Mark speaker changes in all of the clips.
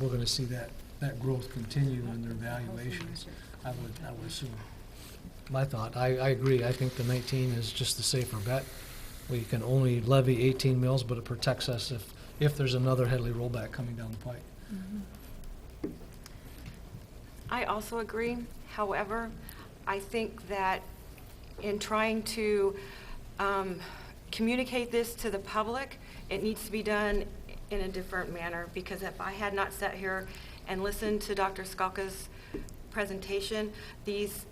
Speaker 1: we're gonna see that, that growth continue in their valuations, I would, I would assume.
Speaker 2: My thought, I, I agree, I think the 19 is just the safer bet. We can only levy 18 mills, but it protects us if, if there's another Headley rollback coming down the pike.
Speaker 3: I also agree. However, I think that in trying to um, communicate this to the public, it needs to be done in a different manner, because if I had not sat here and listened to Dr. Skalka's presentation, these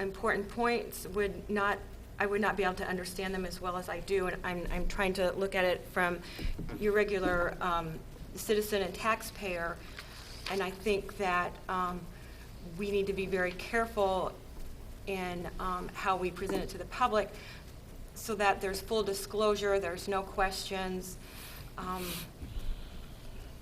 Speaker 3: important points would not, I would not be able to understand them as well as I do, and I'm, I'm trying to look at it from your regular um, citizen and taxpayer, and I think that um, we need to be very careful in um, how we present it to the public so that there's full disclosure, there's no questions. Um,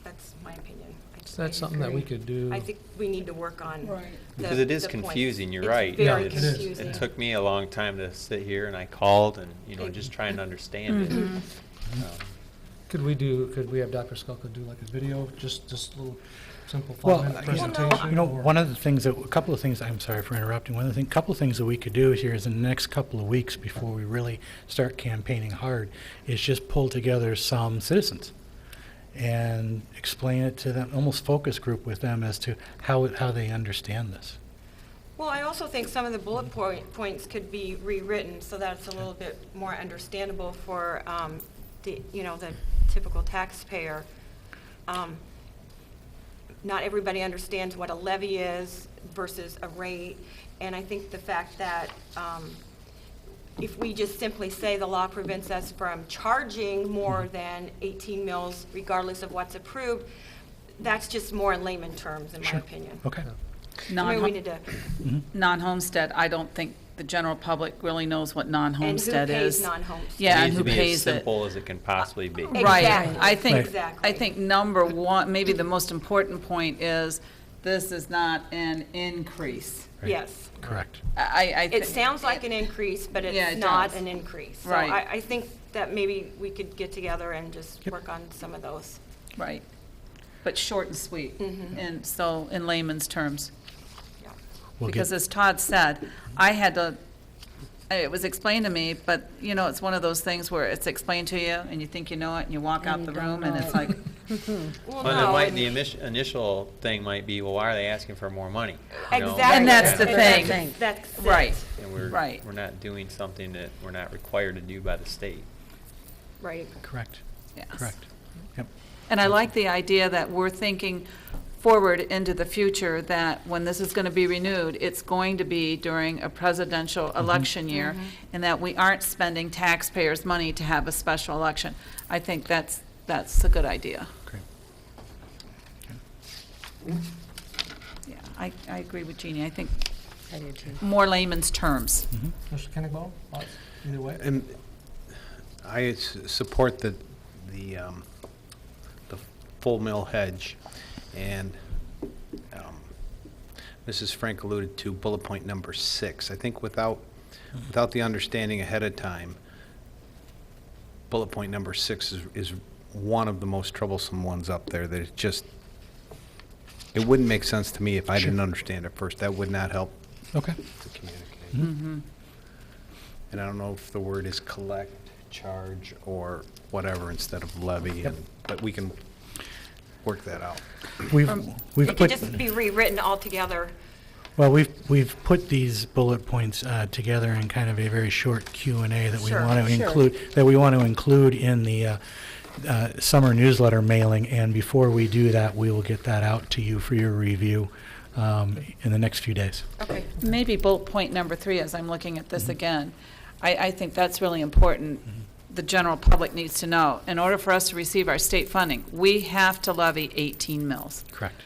Speaker 3: That's my opinion. I
Speaker 2: Is
Speaker 3: just- I
Speaker 2: that something that we
Speaker 3: disagree.
Speaker 2: could do?
Speaker 3: I think we need to work on.
Speaker 4: Right.
Speaker 3: the-
Speaker 5: Because it is
Speaker 3: the points.
Speaker 5: confusing, you're
Speaker 3: It's
Speaker 5: right.
Speaker 2: Yeah, it
Speaker 3: very
Speaker 5: It's-
Speaker 2: is.
Speaker 3: confusing.
Speaker 5: It took me a long time to sit here and I called and, you know, just trying
Speaker 4: Mm-hmm.
Speaker 5: to understand it.
Speaker 3: Mhm.
Speaker 5: Um,
Speaker 2: Could we do, could we have Dr. Skalka do like a video, just, just a little simple
Speaker 6: Well,
Speaker 2: five-minute
Speaker 6: I- Well, no,
Speaker 2: presentation?
Speaker 6: You know,
Speaker 2: or-
Speaker 6: one of the things that, a couple of things, I'm sorry for interrupting, one of the thing, couple of things that we could do here is in the next couple of weeks before we really start campaigning hard, is just pull together some citizens and explain it to them, almost focus group with them as to how, it- how they understand this.
Speaker 3: Well, I also think some of the bullet point, points could be rewritten so that it's a little bit more understandable for, um, the, you know, the typical taxpayer. Um, Not everybody understands what a levy is versus a rate, and I think the fact that, um, if we just simply say the law prevents us from charging more than 18 mills regardless of what's approved, that's just more in layman terms, in my
Speaker 6: Sure. Oh.
Speaker 3: opinion.
Speaker 6: Okay.
Speaker 3: Maybe we need
Speaker 4: Non,
Speaker 3: to
Speaker 6: Mhm.
Speaker 4: non-homestead, I don't think the general public really knows what non-homestead
Speaker 3: And who pays
Speaker 4: is.
Speaker 3: non-homestead?
Speaker 4: Yeah,
Speaker 5: it
Speaker 4: and
Speaker 5: needs
Speaker 4: who
Speaker 5: to be as
Speaker 4: pays it.
Speaker 5: Simple as it can possibly be.
Speaker 3: Exactly.
Speaker 4: Right, I think,
Speaker 3: Exactly.
Speaker 4: I think number one, maybe the most important point is, this is not an increase.
Speaker 6: Right.
Speaker 3: Yes.
Speaker 6: Correct.
Speaker 4: I, I.
Speaker 3: It
Speaker 4: think-
Speaker 3: sounds like an increase, but
Speaker 4: Yeah,
Speaker 3: it's
Speaker 4: it
Speaker 3: not
Speaker 4: does.
Speaker 3: an increase. So
Speaker 4: Right.
Speaker 3: I, I think that maybe we could get together and just
Speaker 6: Yep.
Speaker 3: work on some of those.
Speaker 4: Right, but short and sweet,
Speaker 3: Mhm.
Speaker 4: and so, in layman's terms.
Speaker 3: Yeah.
Speaker 6: We'll get-
Speaker 4: Because as Todd said, I had to, it was explained to me, but, you know, it's one of those things where it's explained to you, and you think you know it, and you walk out the room, and it's like,
Speaker 3: Well,
Speaker 5: Well,
Speaker 3: no,
Speaker 5: it might,
Speaker 3: and-
Speaker 5: the initi- initial thing might be, well, why are they asking for more money? You know,
Speaker 3: Exactly.
Speaker 4: And that's the
Speaker 5: yeah.
Speaker 4: thing.
Speaker 3: That's it.
Speaker 4: Right.
Speaker 5: And we're,
Speaker 4: Right.
Speaker 5: we're not doing something that we're not required to do by the state.
Speaker 3: Right.
Speaker 6: Correct,
Speaker 4: yes.
Speaker 6: correct. Yep.
Speaker 4: And I like the idea that we're thinking forward into the future, that when this is going to be renewed, it's going to be during a presidential election year,
Speaker 7: Mm-hmm.
Speaker 4: and that we aren't spending taxpayers' money to have a special election. I think that's, that's a good idea.
Speaker 6: Great.
Speaker 4: Yeah, I, I agree with Jeannie. I think
Speaker 7: I do too.
Speaker 4: more layman's terms.
Speaker 1: Mr. Kennebaugh, thoughts, either way?
Speaker 8: And I s- support the, the, um, the full mill hedge. And, um, Mrs. Frank alluded to bullet point number six. I think without, without the understanding ahead of time, bullet point number six is, is one of the most troublesome ones up there, that it just, it wouldn't make sense to me if I didn't understand it first. That would not help
Speaker 6: Okay.
Speaker 8: to communicate. And I don't know if the word is collect, charge, or whatever instead of levy, and- but we can work that out.
Speaker 6: We've, we've
Speaker 3: It could
Speaker 6: put-
Speaker 3: just be rewritten altogether.
Speaker 6: Well, we've, we've put these bullet points uh, together in kind of a very short Q and A that we
Speaker 3: Sure,
Speaker 6: want to
Speaker 3: sure.
Speaker 6: include, that we want to include in the uh, uh, summer newsletter mailing. And before we do that, we will get that out to you for your review um, in the next few days.
Speaker 3: Okay.
Speaker 4: Maybe bullet point number three, as I'm looking at this again, I, I think that's really important. The general public needs to know, in order for us to receive our state funding, we have to levy 18 mills.
Speaker 6: Correct.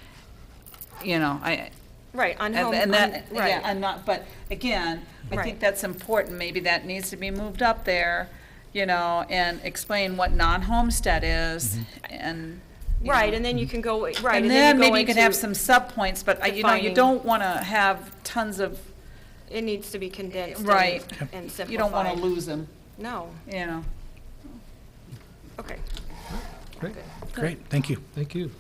Speaker 4: You know, I,
Speaker 3: Right, on home,
Speaker 4: and and
Speaker 3: on,
Speaker 4: that, yeah,
Speaker 3: right.
Speaker 4: I'm not, but again, I
Speaker 3: Right.
Speaker 4: think that's important. Maybe that needs to be moved up there, you know, and explain what non-homestead is and. you know.
Speaker 3: Right, and then you can go, right.
Speaker 4: And then
Speaker 3: go
Speaker 4: maybe you could have
Speaker 3: into-
Speaker 4: some sub-points, but uh, you know, you
Speaker 3: defining-
Speaker 4: don't want to have tons of,
Speaker 3: It needs to be condensed. and-
Speaker 4: Right.
Speaker 3: And simplified.
Speaker 4: you don't want to lose them,
Speaker 3: No,
Speaker 4: you know.
Speaker 3: okay.
Speaker 6: Great, thank you.
Speaker 2: Thank you.